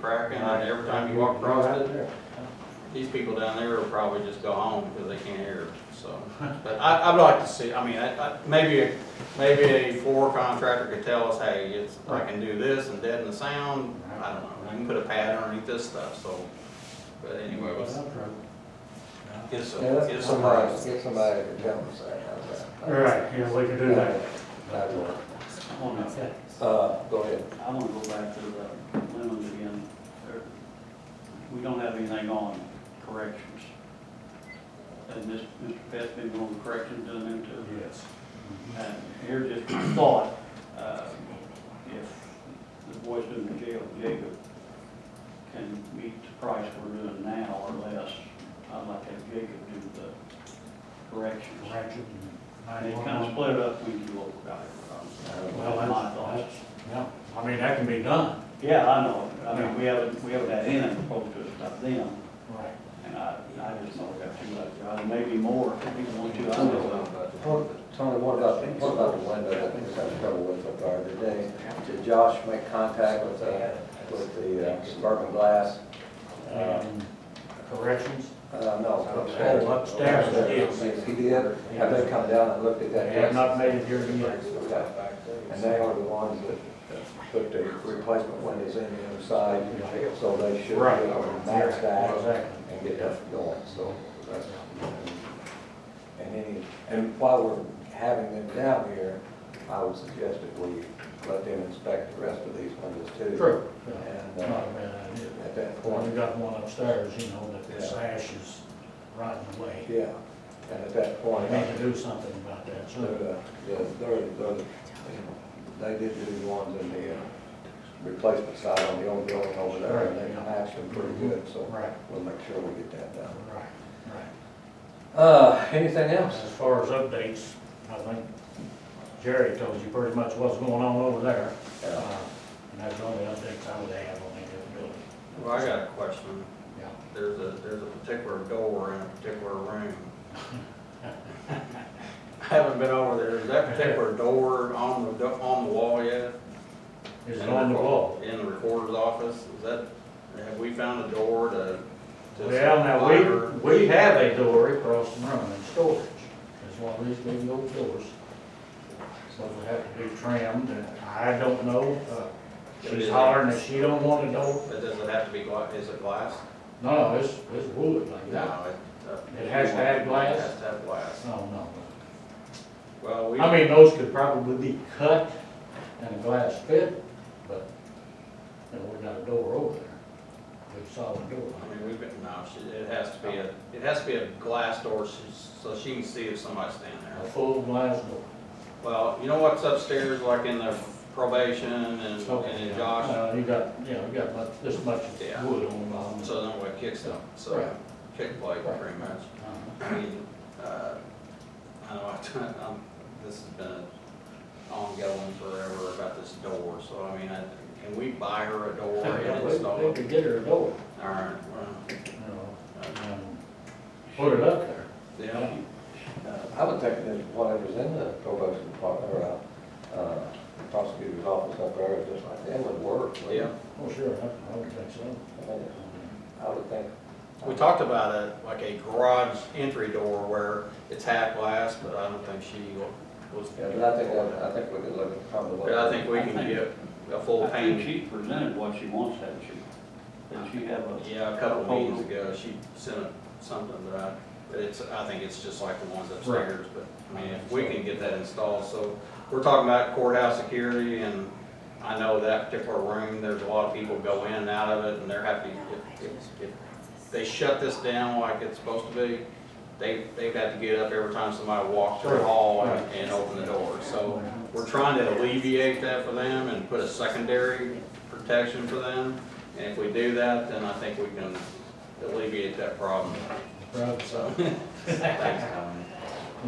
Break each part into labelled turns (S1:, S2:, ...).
S1: cracking, and every time you walk across it, these people down there will probably just go home because they can't hear, so. But I, I'd like to see, I mean, I, I, maybe, a- maybe a floor contractor could tell us, hey, it's, I can do this and deaden the sound, I don't know, we can put a pad underneath this stuff, so. But anyway, let's get some,
S2: Yeah, let's
S1: get
S2: Get
S1: some
S2: somebody,
S1: prices.
S2: get somebody to tell us that, how's that?
S3: Right, yeah, we can do that.
S2: That'd work.
S4: Hold on.
S2: Uh, go ahead.
S4: I want to go back to the Lindland again. There- We don't have anything on corrections. And this, Mr. Pett's been going to corrections doing them too.
S3: Yes.
S4: And here's just my thought, uh, if the boys in the jail, Jacob, can meet the price we're doing now or less, I'd like to have Jacob do the corrections.
S3: Correction.
S4: And it kind of split it up when you look about it.
S3: Well,
S4: That's my
S3: that's,
S4: thoughts.
S3: that's, yeah, I mean, that can be done.
S4: Yeah, I know, I mean, we haven't, we haven't had any proposed to us about them,
S3: Right.
S4: and I, I just know we got too much, uh, maybe more, if people want to, I don't know.
S2: Well, Tony, what about, what about the window that we have trouble with up there today? Did Josh make contact with, uh, with the uh, suburban glass?
S3: Um, Corrections,
S2: Uh, no, upstairs.
S3: Oh, upstairs, yes.
S2: Yes, He did, have they come down and looked at
S3: they
S2: that?
S3: have not made it here yet.
S2: Okay. And they are the ones that put the replacement windows in the other side, so they should be
S3: Right.
S2: able to match that
S3: Exactly.
S2: and get that going, so that's. And any, and while we're having them down here, I would suggest that we let them inspect the rest of these windows too.
S3: True.
S2: And
S3: Not
S2: uh,
S3: a bad idea.
S2: at that
S3: Well, we
S2: point,
S3: got one upstairs, you know, that the
S2: Yeah.
S3: sash is right in the way.
S2: yeah, and at that point,
S3: We
S2: I
S3: need to do something about that,
S2: They're,
S3: so.
S2: the- yeah, they're, they're, the- they did do the ones in the uh, replacement side on the old building over there, and they matched them pretty good, so
S3: Right,
S2: we'll make sure we get that done.
S3: right, right.
S2: Uh, anything else?
S3: As far as updates, I think Jerry told you pretty much what's going on over there.
S2: Yeah.
S3: Uh, And that's the only updates I would have on any of the building.
S1: Well, I got a question.
S3: Yeah.
S1: There's a, there's a particular door in a particular room. I haven't been over there. Is that particular door on the, do- on the wall yet?
S3: Is it on the wall?
S1: In the recorder's office, is that, have we found a door to? to
S3: Well, now,
S1: lock her?
S3: we, we have a door across the room in storage. It's one of these big old doors. So we have to be trimmed, and I don't know, uh, she's hollering that she don't want a door.
S1: But does it have to be glass, is it glass?
S3: No, it's, it's wood like that.
S1: No, it. uh,
S3: It has to have glass?
S1: It has to have glass.
S3: No, no.
S1: Well, we,
S3: I mean, those could probably be cut and a glass fit, but, you know, we got a door over there. We saw the door.
S1: I mean, we've been, no, she- it has to be a, it has to be a glass door she's- so she can see if somebody's standing
S3: A
S1: there.
S3: full glass door.
S1: Well, you know what's upstairs, like in the probation and, and in Josh?
S3: Uh, You got, yeah, you got much, this much
S1: Yeah.
S3: wood on the bottom.
S1: So then what kicks them, so
S3: Right.
S1: kick plate pretty much.
S3: Uh-huh.
S1: I mean, uh, I know, I t- um, this has been ongoing forever about this door, so I mean, I, can we buy her a door
S3: Yeah,
S1: and
S3: we-
S1: install
S3: We
S1: it?
S3: could get her a door,
S1: All right, well,
S3: you know,
S1: uh,
S3: and put it up there.
S1: yeah,
S2: uh, I would think that whatever's in the probation department, or, uh, uh, prosecutor's office up there, just like that would work. wouldn't it?
S1: yeah.
S3: Oh, sure, I I would think so.
S2: I mean, I would think.
S1: We talked about a, like a garage entry door where it's half glass, but I don't think she was.
S2: Yeah, but I think, that- uh, I think we could look at probably. what-
S1: But I think we can get a full
S4: I think
S1: pane,
S4: she presented what she wants, hasn't she? Did she have a,
S1: yeah, a couple of meetings ago, she sent a- something, but I, but it's, I think it's just like the ones upstairs, but, I mean, if we can get that installed, so. We're talking about courthouse security, and I know that particular room, there's a lot of people go in and out of it, and they're happy, if, if, if they shut this down like it's supposed to be, they, they've had to get up every time somebody walks through the hall and, and open the door, so. We're trying to alleviate that for them and put a secondary protection for them, and if we do that, then I think we can alleviate that problem,
S3: Probably
S1: so.
S3: so,
S1: Thanks, Tony.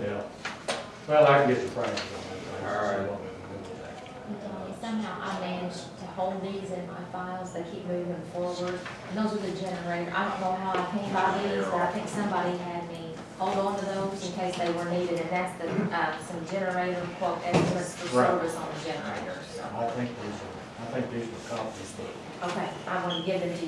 S3: yeah. Well, I can get the prices on that.
S1: All right.
S5: Somehow I managed to hold these in my files, they keep moving forward, and those are the generator, I don't know how I came by these, but I think somebody had me hold on to those in case they were needed, and that's the, uh, some generator quote estimates for
S3: Right.
S5: service on the generators.
S3: I think these are, I think these were copies, but
S5: Okay, I'm gonna give them to you.